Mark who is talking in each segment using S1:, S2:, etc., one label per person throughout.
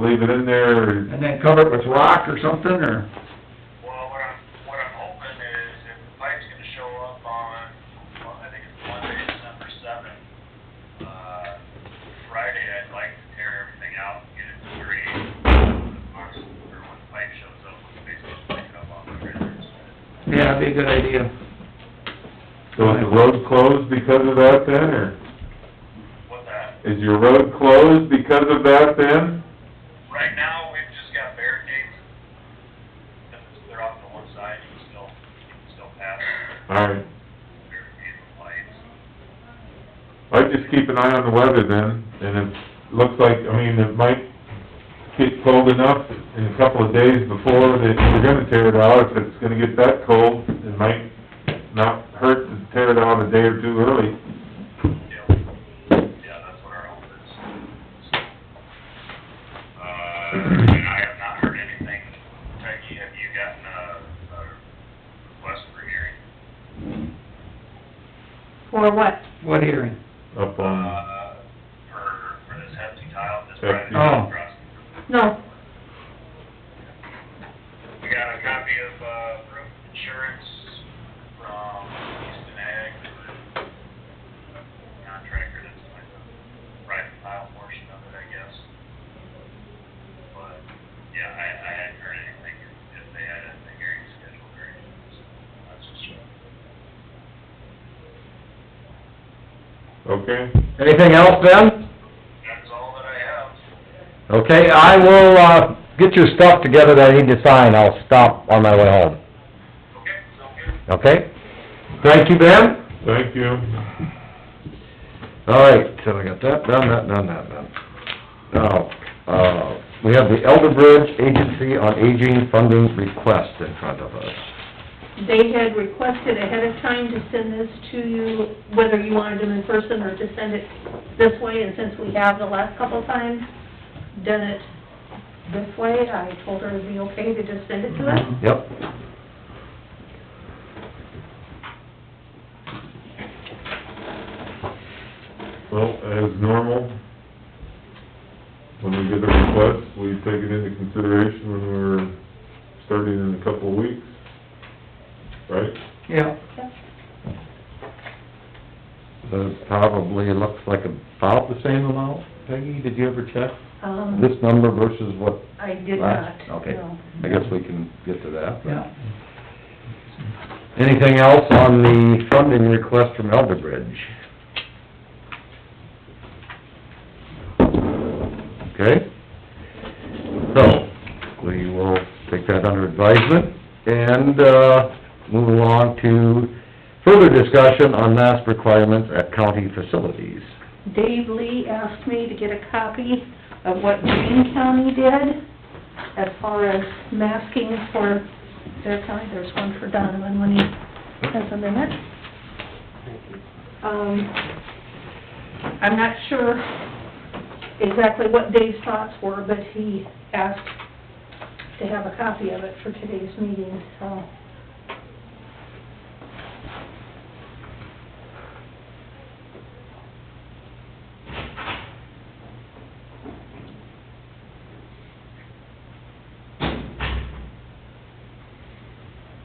S1: leave it in there and
S2: and then cover it with rock or something, or?
S3: Well, what I'm, what I'm hoping is if the pipe's gonna show up on, well, I think it's Monday, December seventh. Uh, Friday, I'd like to tear everything out and get it straight. Once, or when the pipe shows up, we can basically pick it up off the river.
S2: Yeah, it'd be a good idea.
S1: so is the road closed because of that then, or
S3: What that,
S1: is your road closed because of that then?
S3: right now, we've just got barricades. If it's- they're off to one side, you can still, you can still pass.
S1: Alright,
S3: Barricades and
S1: I
S3: lights.
S1: just keep an eye on the weather then, and it looks like, I mean, it might get cold enough in a couple of days before that you're gonna tear it out, if it's gonna get that cold, it might not hurt to tear it out a day or two early.
S3: Yeah, yeah, that's what our hope is. Uh, and I have not heard anything. Peggy, have you gotten a, a request for hearing?
S4: For what?
S2: What hearing?
S1: Up on,
S3: Uh, for, for this hefty tile, this
S1: Hefty.
S3: Friday.
S2: Oh.
S4: No,
S3: We got a copy of, uh, roof insurance from Easton Ag, the contractor that's doing the private tile portion of it, I guess. But, yeah, I, I hadn't heard anything, if they had anything hearing scheduled or anything, so that's just.
S1: okay?
S5: Anything else, Ben?
S3: That's all that I have.
S5: Okay, I will, uh, get your stuff together that I need to sign, I'll stop on my way home,
S3: Okay, so good.
S5: okay? Thank you, Ben.
S1: Thank you.
S5: All right, so we got that done, that done, that done. Now, uh, we have the Elder Bridge Agency on Aging Funding Request in front of us.
S4: they had requested ahead of time to send this to you, whether you wanted them in person or to send it this way, and since we have the last couple times done it this way, I told her it'd be okay to just send it to us.
S5: Yep.
S1: Well, as normal, when we get a request, we take it into consideration when we're starting in a couple of weeks, right?
S2: Yeah.
S5: So probably looks like about the same amount, Peggy, did you ever check?
S4: Um,
S5: Mm-hmm. This number versus what
S4: I did not,
S5: last? Okay,
S4: no.
S5: I guess we can get to that. but-
S2: Yeah.
S5: Anything else on the funding request from Elder Bridge? Okay? So, we will take that under advisement and, uh, move along to further discussion on mask requirements at county facilities.
S4: Dave Lee asked me to get a copy of what Green County did as far as masking for their county. There's one for Donovan when he has a minute. Um, I'm not sure exactly what Dave's thoughts were, but he asked to have a copy of it for today's meeting, so.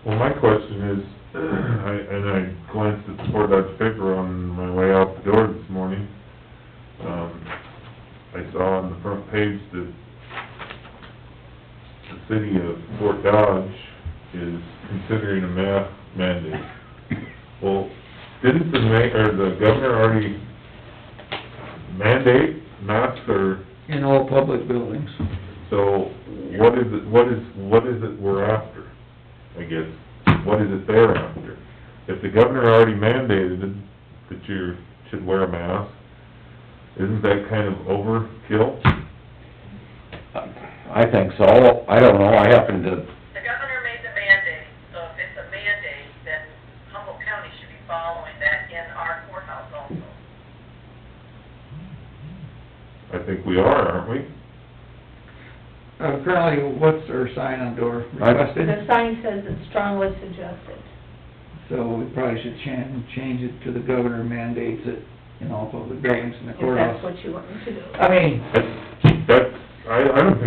S1: Well, my question is, I, and I glanced at the Fort Dodge paper on my way out the door this morning. Um, I saw on the front page that the city of Fort Dodge is considering a mask mandate. Well, didn't the ma, or the governor already mandate masks or,
S2: In all public buildings.
S1: so what is it, what is, what is it we're after? I guess, what is it they're after? If the governor already mandated that you should wear a mask, isn't that kind of overkill?
S5: I think so, I don't know, I happen to,
S6: The governor made the mandate, so if it's a mandate, then Humboldt County should be following that in our courthouse also.
S1: I think we are, aren't we?
S2: Uh, Currently, what's our sign on door
S4: The
S2: requested?
S4: sign says it's strongly suggested.
S2: So we probably should chan, change it to the governor mandates it in all public buildings in the
S4: If that's
S2: courthouse.
S4: what you want me to do.
S2: I mean,
S1: That's, that's, I, I don't think